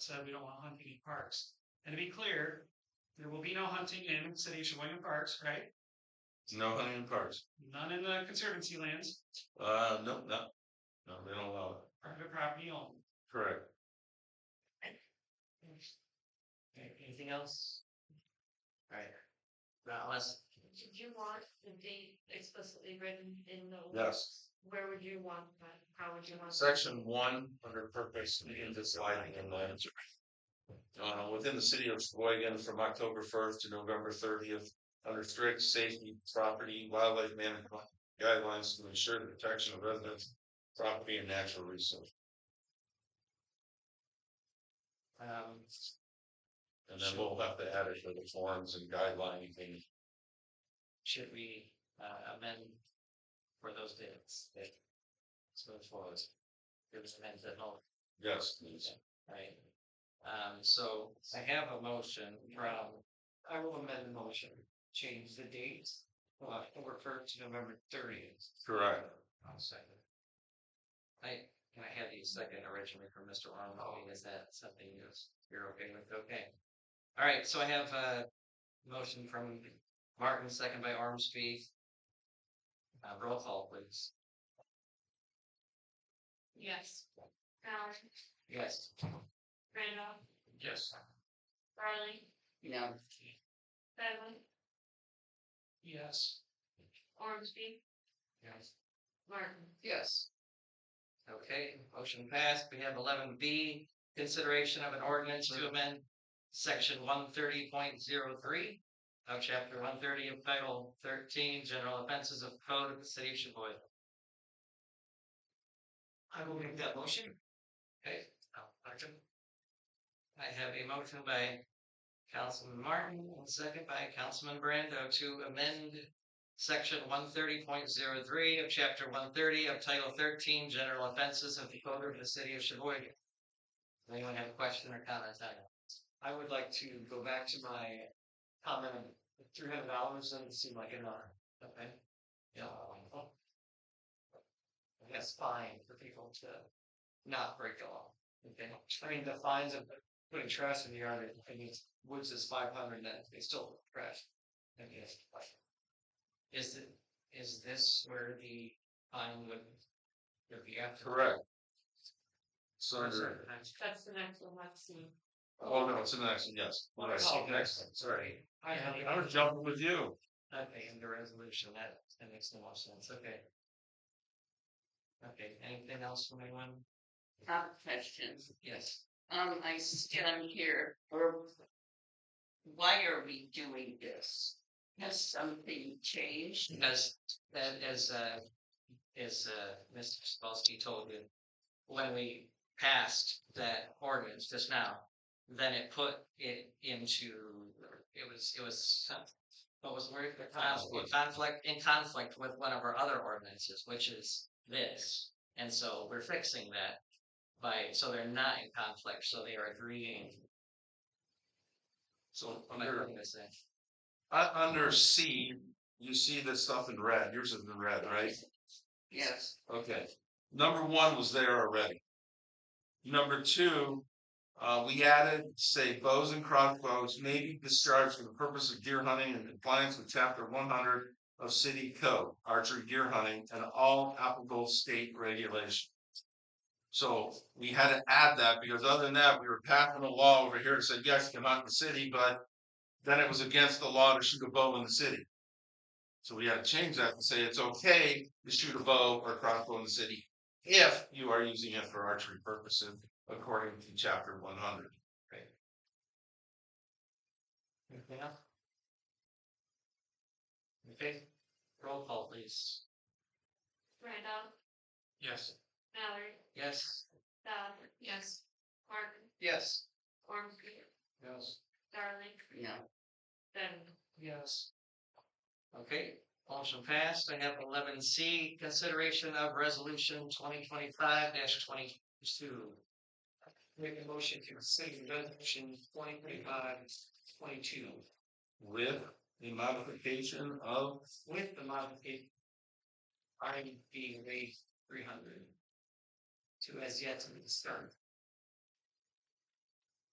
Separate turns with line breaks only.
said we don't want hunting in parks. And to be clear, there will be no hunting in City of Sheboygan Parks, right?
No hunting in parks.
None in the conservancy lands,
Uh, no, no, no, they don't allow it.
private property only.
Correct.
Okay, anything else? Alright. Now, unless,
Did you want the date explicitly written in the?
Yes.
Where would you want that? How would you want? that?
Section one, under purpose in this lighting and lands. Uh, within the city of Sheboygan from October first to November thirtieth, under strict safety, property, wildlife management guidelines to ensure the protection of residents, property and natural resources.
um,
And then we'll have to add it to the forms and guideline thing.
should we uh, amend for those dates? that- So it's forward. It was amended at all,
Yes, please.
right? Um, so I have a motion from, I will amend the motion, change the date, from October first to November thirtieth.
Correct.
I'll second. I, can I have you second originally from Mr. Arnold, I mean, is that something you're, you're okay with, okay? All right, so I have a motion from Martin, second by Ormsby. Uh, roll call please,
Yes. Allen,
yes.
Randolph,
Yes.
Riley,
No.
Bevan,
Yes.
Ormsby,
Yes.
Martin.
Yes. Okay, motion passed, we have eleven B, consideration of an ordinance to amend section one thirty point zero three of chapter one thirty of title thirteen, general offenses of code of the city of Sheboygan. I will make that motion. Okay, I'll second. I have a motion by Councilman Martin, and second by Councilman Brando to amend section one thirty point zero three of chapter one thirty of title thirteen, general offenses of the code of the city of Sheboygan. Does anyone have a question or comment on it? I would like to go back to my comment, three hundred dollars doesn't seem like enough. Okay. Yeah. That's fine for people to not break the law. Okay, I mean, the fines of putting trash in the yard, I mean, woods is five hundred, then they still trash. I guess, like, is it, is this where the fine would, would be after?
Correct. So under-
That's the next one, let's see.
Oh, no, it's an action, yes.
uh, Oh,
Yes,
okay.
excellent, Sorry.
I have,
I was jumping with you.
okay, and the resolution, that, that makes no more sense, okay. Okay, anything else from anyone?
Top questions.
Yes,
Um, I still am here, or why are we doing this? Has something changed?
as, that, as, uh, as, uh, Mr. Spolsky told you, when we passed that ordinance just now, then it put it into, it was, it was, some- what was the word? The conflict, conflict, in conflict with one of our other ordinances, which is this. And so we're fixing that by, so they're not in conflict, so they are agreeing.
So
Am I
under,
putting this in?
uh, under C, you see this stuff in red, yours is in red, right?
Yes,
Okay, number one was there already. Number two, uh, we added, say, bows and crossbows may be discharged for the purpose of deer hunting in compliance with chapter one hundred of city code, archery deer hunting and all applicable state regulations. So we had to add that because other than that, we were passing a law over here that said, yes, come out in the city, but then it was against the law to shoot a bow in the city. So we had to change that and say it's okay to shoot a bow or crossbow in the city if you are using it for archery purposes, according to chapter one hundred.
Anything else? Okay, roll call please.
Randolph,
Yes.
Mallory,
Yes?
Dodd. Yes. Martin,
Yes.
Ormsby,
Yes.
Darling,
no.
Bevan.
Yes. Okay, motion passed. I have eleven C, consideration of resolution twenty twenty-five twenty-two. Make a motion to consider resolution twenty twenty-five twenty-two
With the modification of,
with the modification R and B rate three hundred. To as yet to be discovered.